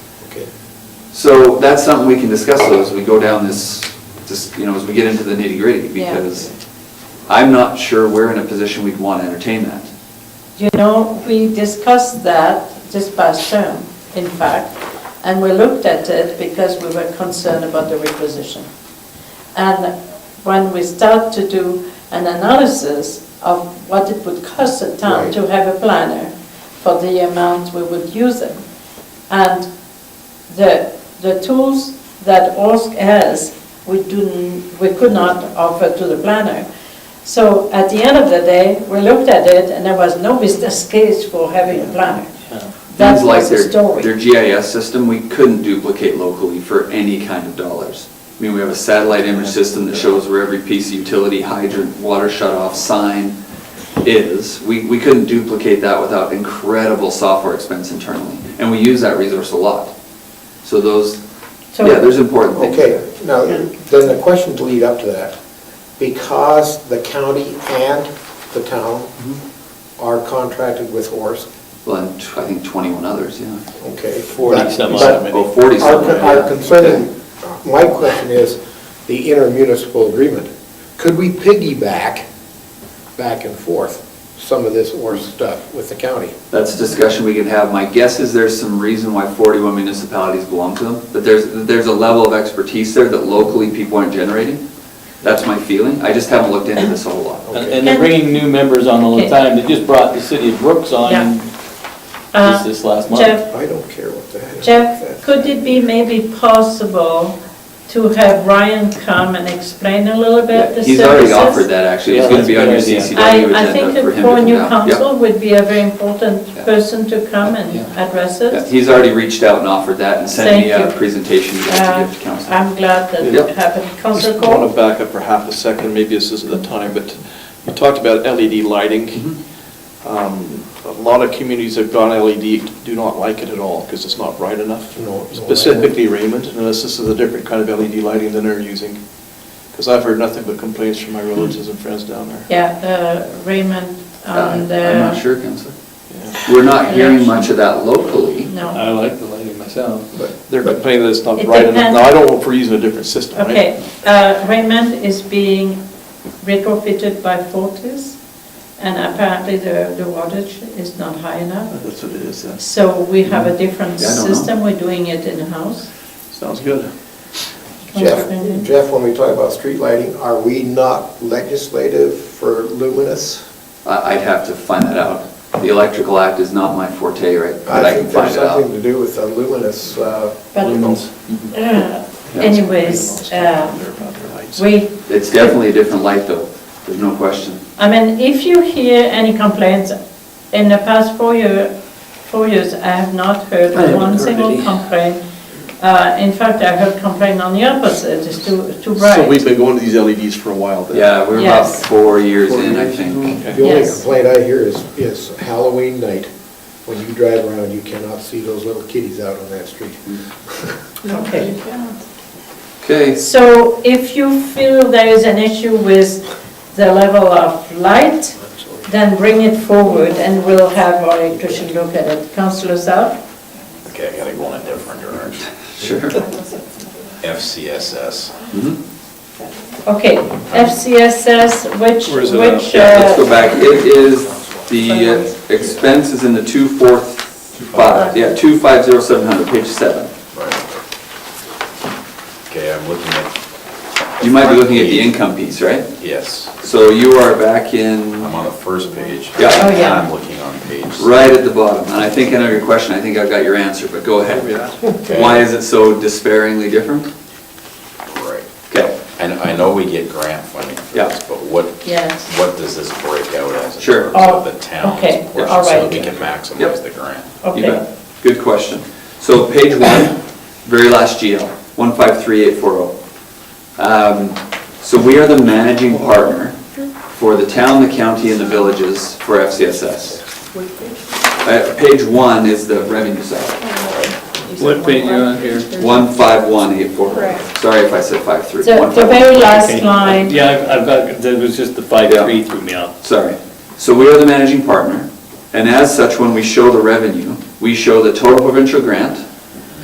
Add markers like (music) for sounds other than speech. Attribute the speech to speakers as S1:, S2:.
S1: Okay.
S2: So that's something we can discuss though, as we go down this, just, you know, as we get into the nitty gritty,
S3: Yeah.
S2: because I'm not sure we're in a position we'd want to entertain that.
S3: You know, we discussed that this past term, in fact, and we looked at it because we were concerned about the requisition. And when we start to do an analysis of what it would cost a town
S1: Right.
S3: to have a planner for the amount we would use them, and the, the tools that OSC has, we do, n- we could not offer to the planner. So at the end of the day, we looked at it, and there was no business (laughs) case for having a planner. That
S2: Things like
S3: was the
S2: their-
S3: story.
S2: Their GIS system, we couldn't duplicate locally for any kind of dollars. I mean, we have a satellite image system that shows where every piece of utility hydrant, water shut-off sign is. We, we couldn't duplicate that without incredible software expense internally, and we use that resource a lot. So those,
S3: So-
S2: yeah, there's important things there.
S1: Okay, now, then the question to lead up to that, because the county and the town
S2: Mm-hmm.
S1: are contracted with Horse,
S2: Well, and tw- I think 21 others, yeah.
S1: okay?
S4: 40
S1: but-
S4: some
S1: but
S4: odd many.
S2: Oh, 40
S1: Our
S2: some.
S1: con-
S2: yeah.
S1: our concern, my question is, the intermunicipal agreement, could we piggyback back and forth some of this Horse stuff with the county?
S2: That's a discussion we can have. My guess is there's some reason why 41 municipalities belong to them, but there's, there's a level of expertise there that locally people aren't generating. That's my feeling. I just haven't looked into this a whole lot.
S4: And and they're bringing new members on all the time. They just brought the city of Brooks on
S3: Uh,
S4: just this last month.
S3: Jeff,
S1: I don't care what that is.
S3: Jeff, could it be maybe possible to have Ryan come and explain a little bit the services?
S2: He's already offered that, actually. It's
S4: Yeah,
S2: going to be on your
S4: that's a good idea.
S2: CCW
S3: I, I think
S2: agenda for him to
S3: for
S2: come
S3: new
S2: down. Yep.
S3: council would be a very important
S2: Yeah.
S3: person to come and
S4: Yeah.
S3: address
S2: Yeah,
S3: it.
S2: He's already reached out and offered that and sent me
S3: Thank
S2: a
S3: you.
S2: presentation to
S3: Uh,
S2: give to council.
S3: I'm glad that
S2: Yep.
S3: it happened. Council
S5: Just want
S3: Court?
S5: to back up for half a second, maybe this isn't the time, but you talked about LED lighting. Um, A lot of communities have gone LED, do not like it at all, because it's not bright enough.
S1: No, no, I-
S5: Specifically Raymond, and this this is a different kind of LED lighting than they're using, because I've heard nothing but complaints from my relatives and friends down there.
S3: Yeah, uh, Raymond
S2: Uh,
S3: on
S2: I'm not
S3: the,
S2: sure, Counselor.
S5: Yeah.
S2: We're not hearing much of that locally.
S3: no.
S4: I like the lighting myself.
S1: But
S5: They're complaining that it's not
S3: It
S5: bright enough.
S3: depends-
S5: Now, I don't know if we're using a different system, right?
S3: Okay, uh, Raymond is being retrofitted by Fortis, and apparently the, the wattage is not high enough.
S5: That's what it is, yeah.
S3: So we have a different
S2: Mm-hmm. Yeah, I don't know.
S3: system, we're doing it in-house.
S5: Sounds good.
S1: Jeff,
S3: Mhm.
S1: Jeff, when we talk about street lighting, are we not legislative for luminous?
S2: I- I'd have to find that out. The Electrical Act is not my forte, right? But I can
S1: think there's
S2: find it out.
S1: something to do with the luminous, uh,
S3: But-
S1: lumens.
S3: Uh, Anyways, uh,
S5: They're about their lights.
S3: we,
S2: It's definitely a different light, though, there's no question.
S3: I mean, if you hear any complaints, in the past four year, four years, I have not heard
S4: I haven't
S3: one
S4: heard
S3: single
S4: any.
S3: complaint. Uh, in fact, I heard complaint on the opposite, it's too, too
S5: So we've
S3: bright.
S5: been going to these LEDs for a while then.
S2: Yeah, we're about
S3: Yes.
S2: four years Mm-hmm. in, I think.
S1: The only
S3: Yes.
S1: complaint I hear is, is Halloween night, when you drive around, you cannot see those little kitties out on that street.
S3: Okay.
S2: Okay,
S3: So if you feel there is an issue with the level of light, then bring it forward and we'll have our electrician look at it. Councillor South?
S6: Okay, I gotta go in a different direction.
S2: sure.
S6: FCSS.
S2: Mhm.
S3: Okay, FCSS, which,
S5: Where is it at?
S3: which,
S2: Yeah, let's go
S3: uh,
S2: back. It is, the uh, expense is in the two four five, yeah, two five zero seven hundred, page seven.
S6: Okay, I'm looking at,
S2: You might be looking at the income piece, right?
S6: yes,
S2: So you are back in,
S6: I'm on the first page.
S2: Yeah.
S3: Oh, yeah.
S6: I'm looking on page.
S2: right at the bottom, and I think I know your question, I think I've got your answer, but go ahead.
S6: Okay.
S2: Why is it so despairingly different?
S6: Right.
S2: Okay.
S6: And I know we get grant funding for
S2: Yeah.
S6: this, but what,
S3: yes.
S6: what does this break out as? in
S2: Sure.
S6: terms of
S3: Oh,
S6: The town's
S3: okay,
S6: portion,
S3: all
S6: so
S3: right.
S6: that we can
S2: Yep.
S6: maximize the grant.
S2: You
S3: Okay,
S2: bet. Good question. So page one, very last GL, 153840. oh. Um, So we are the managing partner for the town, the county, and the villages for FCSS. Uh, Page one is the revenue side,
S4: What page you on here?
S2: 151840. oh. Sorry if I said five three.
S3: the,
S2: One
S3: the
S2: five one. oh.
S3: very last
S4: Okay.
S3: line,
S4: Yeah, I've- I've got, that was just the five,
S2: Yeah.
S4: three threw me off.
S2: sorry. So we are the managing partner, and as such, when we show the revenue, we show the total provincial grant,